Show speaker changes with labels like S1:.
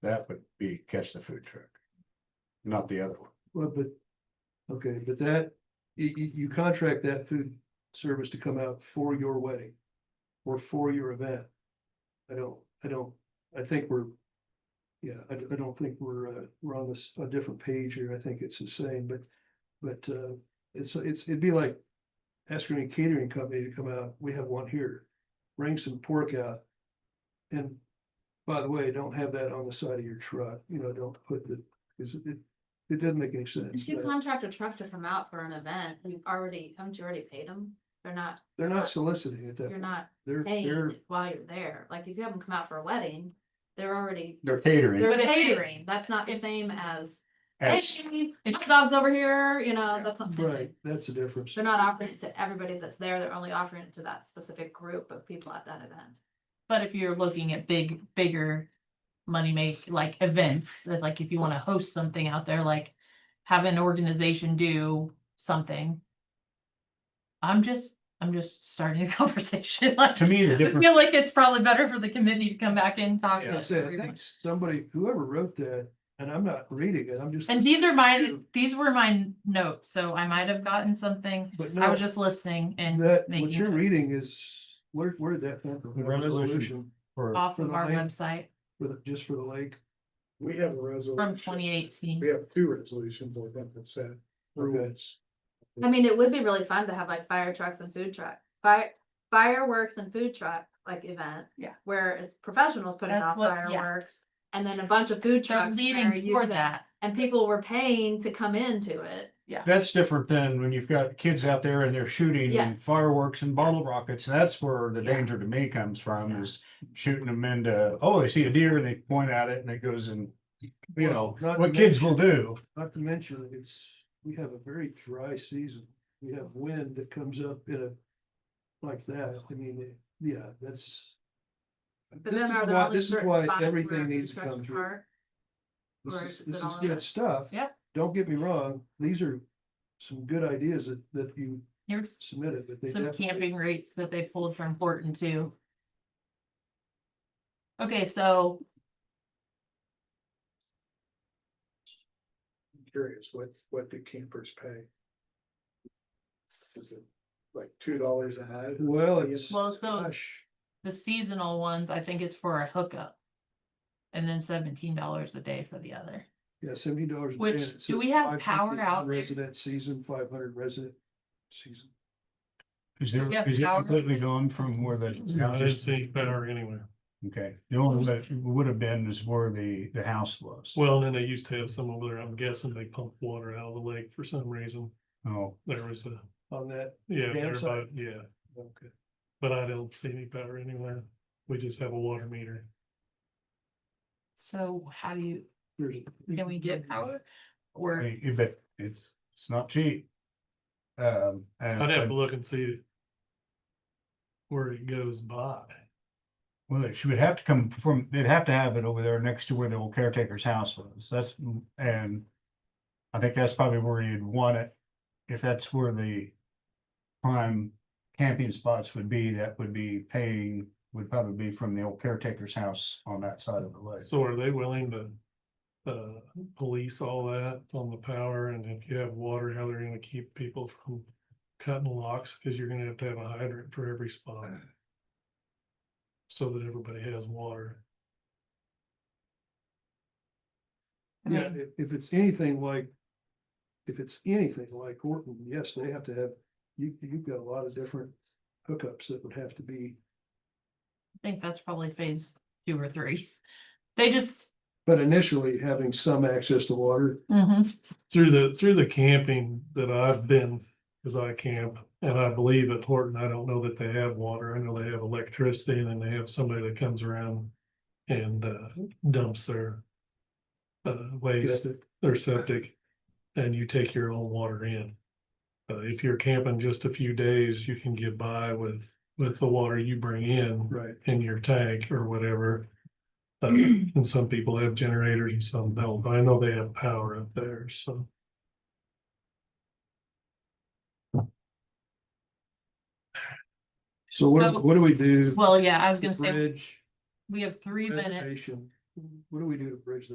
S1: That would be catch the food truck. Not the other one.
S2: Well, but, okay, but that, you, you, you contract that food service to come out for your wedding or for your event. I don't, I don't, I think we're, yeah, I, I don't think we're, uh, we're on this, a different page here. I think it's the same, but, but, uh, it's, it's, it'd be like asking a catering company to come out. We have one here. Bring some pork out. And by the way, don't have that on the side of your truck, you know, don't put the, because it, it doesn't make any sense.
S3: If you
S2: but-
S3: contract a truck to come out for an event, you've already, haven't you already paid them? They're not,
S2: They're not soliciting at that.
S3: you're
S2: point.
S3: not
S2: They're, they're,
S3: paying while you're there. Like if you have them come out for a wedding, they're already,
S1: They're catering.
S3: they're
S4: But if-
S3: catering. That's not the
S4: if-
S3: same as, hey,
S1: That's-
S3: hot dogs over here, you know, that's not. the same
S2: right,
S3: thing.
S2: that's the difference.
S3: They're not offering it to everybody that's there. They're only offering it to that specific group of people at that event.
S4: But if you're looking at big, bigger money make, like events, that like if you wanna host something out there, like have an organization do something. I'm just, I'm just starting the conversation, like,
S1: To me, the
S4: I
S1: difference,
S4: feel like it's probably better for the committee to come back and talk.
S2: Like I
S4: to
S2: said, I
S4: everybody.
S2: think somebody, whoever wrote that, and I'm not reading it, I'm just.
S4: And these are my, these were my notes, so I might have gotten something,
S2: But
S4: I
S2: no,
S4: was just listening and
S2: that, what
S4: making
S2: you're
S4: notes.
S2: reading is, where, where did that come from?
S1: The
S2: A
S1: resolution. for-
S4: off
S2: for
S4: of
S2: the
S4: our
S2: lake.
S4: website
S2: For the, just for the lake.
S5: We have a
S4: from
S2: Oh,
S5: resolution.
S4: twenty eighteen.
S5: We have two resolutions, I think, that said rules.
S3: I mean, it would be really fun to have like fire trucks and food truck, fire fireworks and food truck like event.
S4: Yeah.
S3: Where it's professionals putting
S4: That's
S3: off
S4: what- yeah.
S3: fireworks and then a bunch of food
S4: They're
S3: trucks. where
S4: leading
S3: you
S4: toward
S3: can-
S4: that.
S3: And people were paying to come into it.
S1: That's different than when you've got kids out there and they're shooting and
S3: Yes.
S1: fireworks and bottle rockets. That's where the danger to me comes from is shooting them into, oh, they see a deer and they point at it and it goes and, you know,
S2: Not to
S1: what kids will
S2: mention-
S1: do.
S2: Not to mention, it's, we have a very dry season. We have wind that comes up in a, like that. I mean, it- yeah, that's.
S3: But
S2: this
S3: then
S2: is
S3: are there
S2: why-
S3: only
S2: This is
S3: certain
S2: why
S3: spots where
S2: everything needs to
S3: construction
S2: come through.
S3: park?
S2: This
S3: Or
S2: is,
S3: is it
S2: this is
S3: all of
S2: good
S3: it?
S2: stuff.
S4: Yeah.
S2: Don't get me wrong, these are some good ideas that, that you
S4: Here's
S2: submitted, but they
S4: some
S2: definitely.
S4: camping rates that they pulled from Horton too. Okay, so
S5: I'm Curious, what, what do campers pay? Is it Like two dollars a night?
S2: Well, it's,
S4: Well, so-
S2: gosh,
S4: the seasonal ones, I think is for a hookup. And then seventeen dollars a day for the other.
S2: yeah, seventy dollars.
S4: Which- do we have power out there?
S2: Resident season, five hundred resident season.
S1: Is there,
S4: Yeah,
S1: is it
S4: power.
S1: completely gone from where the?
S6: Just the better anyway.
S1: Okay, the only that would have been is where the, the house was.
S6: Well, and then they used to have some over there. I'm guessing they pump water out of the lake for some reason.
S1: Oh,
S6: There was a,
S2: On that,
S6: yeah, there,
S2: Downside.
S6: but yeah,
S2: okay,
S6: but I don't see any power anywhere. We just have a water meter.
S4: So how do you,
S2: there's.
S4: can we get power? Or,
S1: I- I bet it's, it's not cheap. Um, and,
S6: I'd have to
S1: and-
S6: look and see where it goes by.
S1: well, it should have to come from, they'd have to have it over there next to where the old caretaker's house was, that's, and. I think that's probably where you'd want it, if that's where the prime camping spots would be, that would be paying, would probably be from the old caretaker's house on that side of the lake.
S6: So are they willing to uh, police all that on the power and if you have water, how they're gonna keep people from cutting locks? Cause you're gonna have to have a hydrant for every spot. So that everybody has water.
S4: I
S2: Yeah,
S4: mean,
S2: if, if it's anything like, if it's anything like Horton, yes, they have to have, you, you've got a lot of different hookups that would have to be.
S4: I think that's probably phase two or three. They just,
S2: But initially, having some access to water
S4: mhm,
S6: through the through the camping that I've been, because I camp, and I believe at Horton, I don't know that they have water. I know they have electricity, and then they have somebody that comes around and uh, dumps their uh, waste
S2: Septic.
S6: their septic, and you take your own water in. Uh, if you're camping just a few days, you can get by with with the water you bring in
S2: Right.
S6: in your tank or whatever. Uh, and some people have generators and some don't, but I know they have power up there, so.
S2: So what,
S4: So-
S2: what do we do?
S4: well, yeah, I was gonna say,
S2: Bridge,
S4: we have three minutes
S2: renovation, What do we do to bridge